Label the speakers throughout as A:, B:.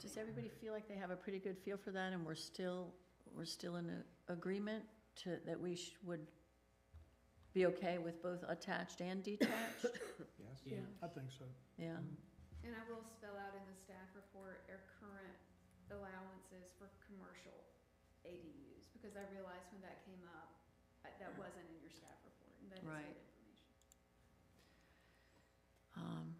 A: Does everybody feel like they have a pretty good feel for that and we're still, we're still in a- agreement to, that we sh- would be okay with both attached and detached?
B: Yes,
C: Yeah.
D: I think so.
A: Yeah,
C: And I will spell out in the staff report our current allowances for commercial ADUs, because I realized when that came up, uh, that wasn't in your staff report, and that is good
A: Right.
C: information.
A: um,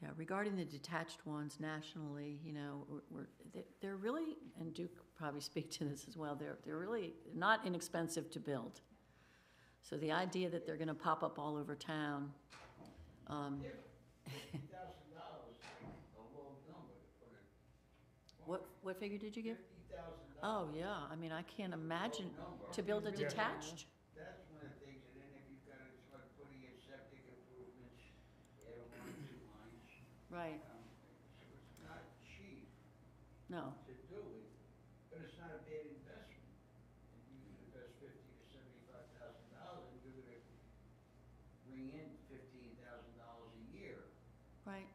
A: yeah, regarding the detached ones nationally, you know, we're- we're, they- they're really, and Duke probably speak to this as well, they're, they're really not inexpensive to build. So the idea that they're gonna pop up all over town, um,
E: thousand dollars, a low number to put in.
A: what, what figure did you give?
E: Fifty thousand dollars.
A: Oh, yeah, I mean, I can't imagine, to build a
D: Yeah.
A: detached?
E: That's one of the things, and then if you've got to start putting in septic improvements, add one, two lines.
A: Right,
E: um, So it's not cheap
A: no,
E: to do it, but it's not a bad investment. If you can invest fifty to seventy-five thousand dollars, you're gonna bring in fifteen thousand dollars a year.
A: right,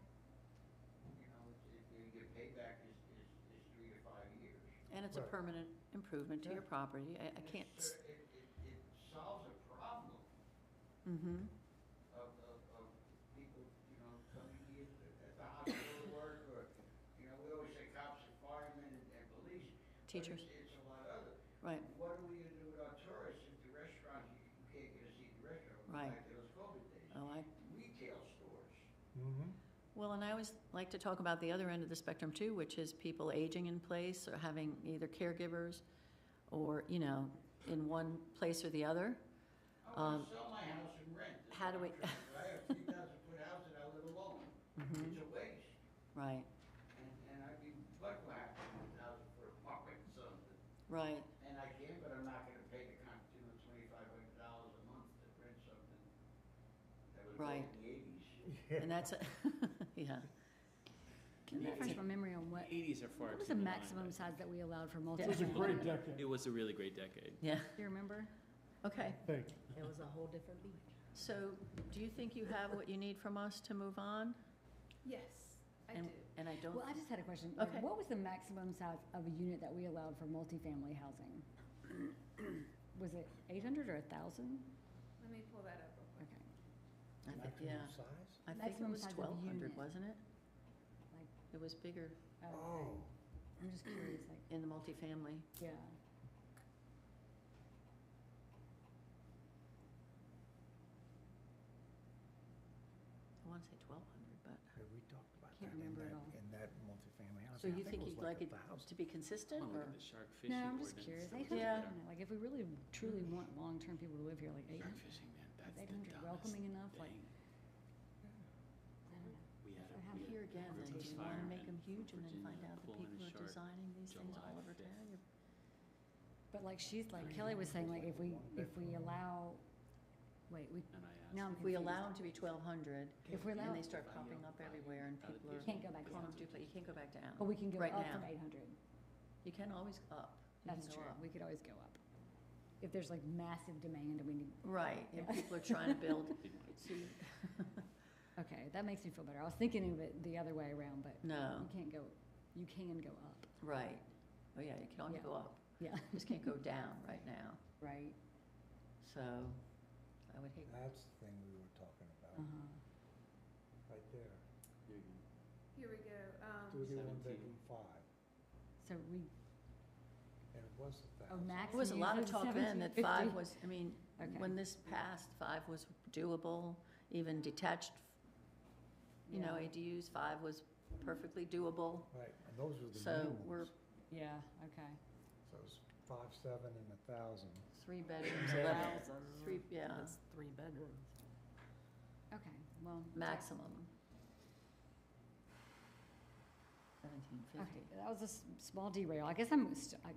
E: You know, it- it- your payback is, is, is three to five years.
A: and it's a
D: Right.
A: permanent improvement to your property, I, I
E: And
A: can't,
E: it's cer- It, it, it solves a problem
A: mm-hmm,
E: of, of, of people, you know, coming here at at the hospital to work, or, you know, we always say cops and firemen and, and police. but
A: teachers,
E: it's- It's a lot other.
A: right,
E: What are we gonna do with our tourists if the restaurants, you you can't get a seat in the restaurant, go
A: Right.
E: back to those COVID days?
A: oh, I,
E: Retail stores,
D: Mm-hmm.
A: Well, and I always like to talk about the other end of the spectrum too, which is people aging in place or having either caregivers or, you know, in one place or the other.
E: I wanna
A: Um,
E: sell my house and rent. is
A: how do
E: what
A: we-
E: I'm trying to do. I have three thousand foot house and I live alone,
A: Mhm.
E: it's a waste,
A: Right,
E: and, and I'd be butt whacked with a thousand foot apartment or something.
A: right,
E: And I can, but I'm not gonna pay the con, two hundred twenty-five hundred dollars a month to print something that was
A: Right.
E: built in the eighties.
A: and that's, a- yeah.
F: Can you
A: And that's
F: refresh
A: a-
F: my memory on what,
G: Eighties are far
F: what was
G: too
F: the
G: benign,
F: maximum
G: but
F: size that we allowed for
D: It was a
F: multifamily?
D: great decade.
G: It was a really great decade.
A: Yeah,
F: Do you remember?
A: okay,
D: Thank
H: It was a whole different beat.
A: so do you think you have what you need from us to move on?
C: Yes, I
A: And-
C: do.
A: And I don't,
F: Well, I just had a question.
A: Okay.
F: What was the maximum size of a unit that we allowed for multifamily housing? Was it eight hundred or a thousand?
C: Let me pull that up real quick.
F: Okay,
A: I
D: you.
A: think, yeah,
D: size?
A: I think it
F: Maximum
A: was
F: size of
A: twelve hundred,
F: unit.
A: wasn't it?
F: Like-
A: It was bigger
F: oh,
D: Oh,
F: I'm just curious, like,
A: in the multifamily.
F: yeah.
A: I wanna say twelve hundred, but.
D: yeah, we talked about
F: Can't remember at all.
D: in that multifamily
A: So you think you'd like it to be
G: I
A: consistent
G: wanna look
A: or?
G: at the shark fishing
F: No, I'm
G: ordinance.
F: just curious. Mm-hmm. Eight
G: that was
A: Yeah.
F: hundred, I
G: out
F: don't know, like, if we really truly want long-term people to live here, like
G: there.
F: eight
G: Shark
F: hundred,
G: fishing, man,
F: is
G: that's the
F: eight hundred
G: dumbest
F: welcoming
G: thing.
F: enough? Like, I don't know.
G: We had a,
F: I have
A: I'm
G: we had
A: here again,
G: group
A: that
G: of
A: you wanna make
G: firemen
A: them
G: from
A: huge and then find
G: Virginia
A: out the
G: pulling
A: people
G: a
A: who are
G: shark
A: designing these things all
G: July
A: over
G: 5th.
A: town. You're-
F: But like she's like Kelly was saying, like if we if we allow, wait, we
G: And I asked.
F: now I'm
A: If we
F: confused.
A: allow them to be twelve hundred
F: If we
A: and
F: allow,
A: they start popping up everywhere and
G: Other
A: people
G: people-
A: are.
F: You can't go back
A: calling
F: down.
A: them duplicate, you can't go back
F: but
A: down.
F: we can go
A: right
F: up
A: now.
F: from eight hundred.
A: You can always up. You can
F: That's
A: go
F: true.
A: up.
F: We could always go up if there's like massive demand and we need.
A: Right, and
F: Yeah.
A: people are trying to build.
G: Didn't wanna
A: So you-
F: Okay, that makes me feel better. I was thinking of it the other way around, but you
A: No,
F: can't go. You can go up.
A: right. Oh, yeah, you can only
F: Yeah.
A: go up.
F: Yeah.
A: You Just can't go down right now.
F: Right.
A: So I would hate,
D: That's the thing we were talking
F: Uh
A: Uh-huh.
D: about, right there.
G: There you go.
C: Here we go, um,
D: Do the one
G: 17.
D: bedroom five,
F: So we
D: and it was a
F: oh
D: thousand.
F: max.
A: there was a lot of talk then that five was, I mean,
F: Okay.
A: when this passed, five was doable, even detached, you know,
F: Yeah.
A: ADUs, five was perfectly doable.
D: Right, and those were the
A: So
D: new
A: we're
D: ones.
F: Yeah. Okay.
D: So it was five, seven, and a thousand.
A: three bedrooms, eleven, three, yeah,
H: That's three bedrooms.
F: Okay. Well.
A: maximum. Seventeen
F: Okay,
A: fifty.
F: that was a s- small derail. I guess I'm, st- I,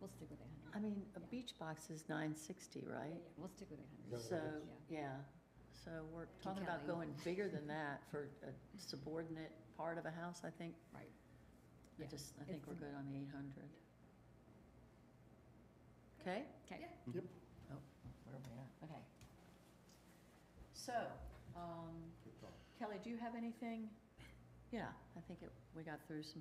F: we'll stick with eight hundred.
A: I mean, a beach box is nine sixty, right?
F: We'll stick with eight hundred.
D: Yeah.
A: So,
F: Yeah.
A: yeah, so we're talking about
F: Kelly.
A: going bigger than that for a subordinate part of a house, I think.
F: Right.
A: I
F: Yeah.
A: just, I think
F: It's-
A: we're good on the eight hundred. Okay?
F: Okay.
D: Yep.
A: Oh, where are we at? Okay. So, um,
D: Good thought.
A: Kelly, do you have anything? Yeah, I think it, we got through some